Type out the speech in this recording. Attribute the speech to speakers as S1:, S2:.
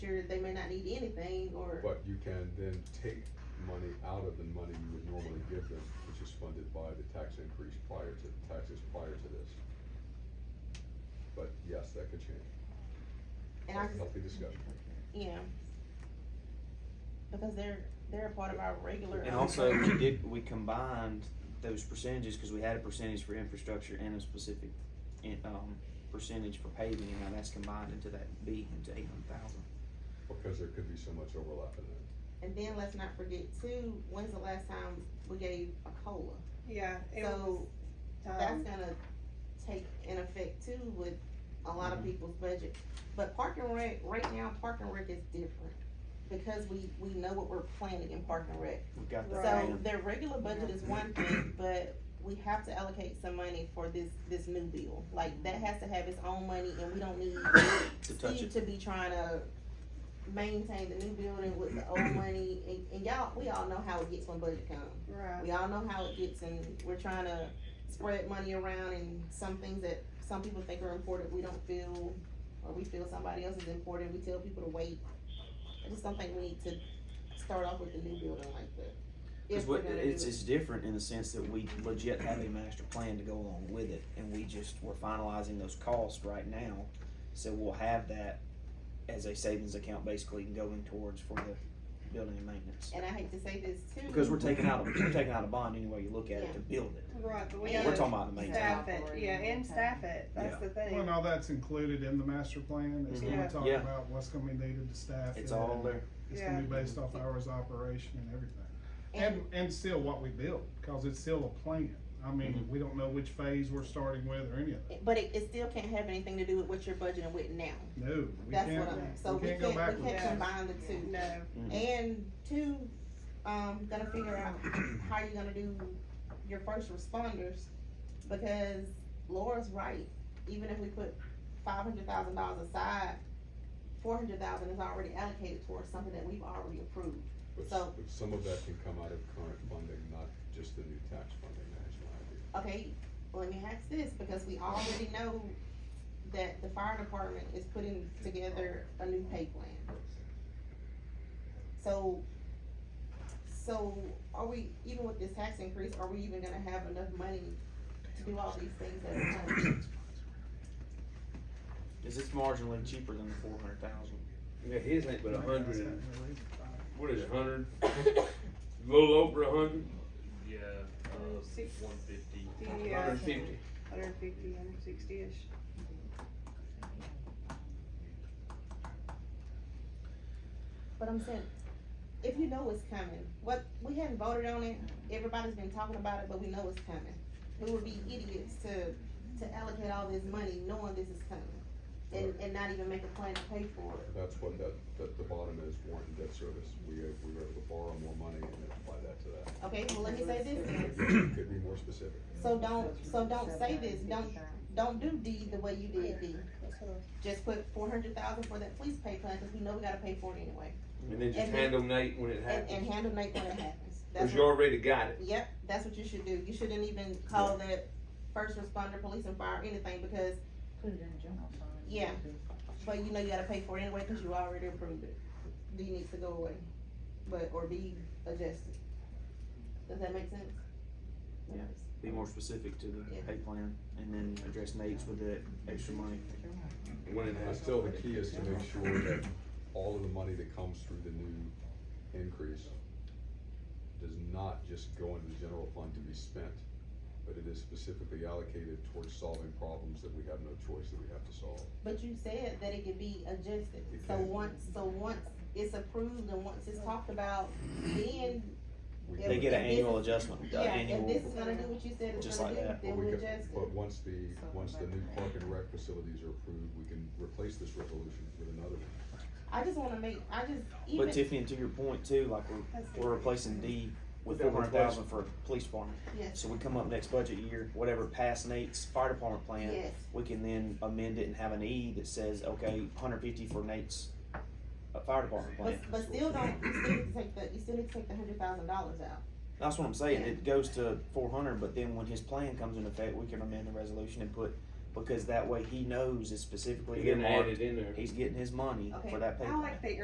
S1: sure they may not need anything or,
S2: But you can then take money out of the money you would normally give them, which is funded by the tax increase prior to, taxes prior to this. But yes, that could change.
S1: and I,
S2: Healthy discussion.
S1: yeah. Because they're, they're a part of our regular.
S3: And also, we did, we combined those percentages, cause we had a percentage for infrastructure and a specific, in- um, percentage for paving, and now that's combined into that B, into eight hundred thousand.
S2: Because there could be so much overlap in that.
S1: And then let's not forget too, when's the last time we gave a COLA?
S4: Yeah, it was,
S1: So that's
S4: um,
S1: gonna take an effect too with a lot of people's budget. But parking and rec, right now, parking and rec is different because we, we know what we're planning in parking and rec.
S3: We've got that.
S1: So
S3: item.
S1: their regular budget is one thing, but we have to allocate some money for this, this new bill. Like, that has to have its own money and we don't need
S3: To touch
S1: Steve
S3: it.
S1: to be trying to maintain the new building with the old money. And, and y'all, we all know how it gets when budget comes.
S4: right,
S1: We all know how it gets and we're trying to spread money around and some things that some people think are important, we don't feel, or we feel somebody else is important, we tell people to wait. I just don't think we need to start off with the new building like that.
S3: Cause
S1: If we're
S3: what,
S1: gonna
S3: it's,
S1: do it.
S3: it's different in the sense that we legit have a master plan to go along with it, and we just, we're finalizing those costs right now. So we'll have that as a savings account basically going towards for the building and maintenance.
S1: And I hate to say this too.
S3: Because we're taking out, we're taking out a bond anyway you look at it to build it.
S4: right, but we
S1: Yeah.
S3: We're
S4: gotta
S3: talking about the maintenance.
S4: staff it, yeah, and staff it, that's the thing.
S5: Well, now that's included in the master plan, it's
S4: Mhm. Yeah.
S5: gonna talk
S3: Yeah.
S5: about what's gonna be needed to staff.
S3: It's
S5: it,
S3: all there.
S5: It's gonna be
S3: Yeah.
S5: based off hours of operation and everything.
S1: And-
S5: And, and still what we build, cause it's still a plan. I mean,
S3: Mhm.
S5: we don't know which phase we're starting with or any of that.
S1: But it, it still can't have anything to do with what you're budgeting with now.
S5: No, we
S1: That's what
S5: can't,
S1: I'm, so
S5: we
S1: we
S5: can't go
S1: can't, we
S5: backwards.
S1: can't combine the two.
S4: No,
S1: And two, um, gonna figure out how you're gonna do your first responders, because Laura's right. Even if we put five hundred thousand dollars aside, four hundred thousand is already allocated towards something that we've already approved.
S2: But s-
S1: So-
S2: but some of that can come out of current funding, not just the new tax funding, that's my idea.
S1: Okay, let me ask this, because we already know that the fire department is putting together a new pay plan. So, so are we, even with this tax increase, are we even gonna have enough money to do all these things that we're trying to do?
S3: Is it's marginally cheaper than the four hundred thousand?
S6: Yeah, his ain't but a hundred
S5: That's
S6: and,
S5: not really fine.
S6: what is it, hundred? A little over a hundred?
S7: Yeah, uh,
S4: Six.
S7: one fifty.
S4: yeah.
S6: Hundred and fifty.
S4: hundred fifty, hundred sixty-ish.
S1: But I'm saying, if you know it's coming, what, we haven't voted on it, everybody's been talking about it, but we know it's coming. We would be idiots to, to allocate all this money knowing this is coming, and, and not even make a plan to pay for it.
S2: That's what that, that the bottom is, warrant and debt service, we, we were able to borrow more money and then apply that to that.
S1: Okay, well, let me say this then.
S2: It Could be more specific.
S1: So don't, so don't say this, don't, don't do D the way you did D. Just put four hundred thousand for that police pay plan, cause we know we gotta pay for it anyway,
S6: And then just
S1: And then-
S6: handle Nate when it
S1: and, and
S6: happens.
S1: handle Nate when it happens. That's
S6: Cause you
S1: what-
S6: already got it.
S1: Yep, that's what you should do, you shouldn't even call that first responder, police and fire, anything, because,
S8: Put it in the general fund.
S1: Yeah. but you know you gotta pay for it anyway, cause you already approved it. D needs to go away, but, or be adjusted. Does that make sense?
S3: Yeah. Be more specific to the
S1: Yeah.
S3: pay plan and then address Nate's with the extra money.
S6: When it
S2: But
S6: happens.
S2: still, the key is to make sure that all of the money that comes through the new increase does not just go into the general fund to be spent, but it is specifically allocated towards solving problems that we have no choice that we have to solve.
S1: But you said that it could be adjusted,
S2: It
S1: so
S2: can.
S1: once, so once it's approved and once it's talked about, then,
S2: We
S1: They
S3: They
S2: can-
S3: get an
S1: And this-
S3: annual adjustment, the
S1: yeah, if this
S3: annual,
S1: is gonna do what you said it's
S3: Just
S1: gonna
S3: like
S1: do,
S3: that.
S2: But
S1: then
S2: we
S1: we
S2: can-
S1: adjust
S2: But
S1: it.
S2: once the, once the new park and rec facilities are approved, we can replace this resolution with another one.
S1: I just wanna make, I just,
S3: but
S1: even,
S3: Tiffany, and to your point too, like we're,
S4: That's
S3: we're replacing D with
S6: With that
S3: four hundred thousand for police department.
S1: yes,
S3: So we come up next budget year, whatever past Nate's fire department plan,
S1: yes,
S3: we can then amend it and have an E that says, okay, hundred fifty for Nate's uh, fire department plan.
S1: but, but still don't, you still need to take the, you still need to take the hundred thousand dollars out.
S3: That's what I'm saying,
S1: Yeah.
S3: it goes to four hundred, but then when his plan comes into effect, we can amend the resolution and put because that way he knows it's specifically
S6: You're gonna add
S3: earmarked.
S6: it in there.
S3: He's getting his money
S1: Okay,
S3: for that pay
S4: I
S3: plan.
S4: like the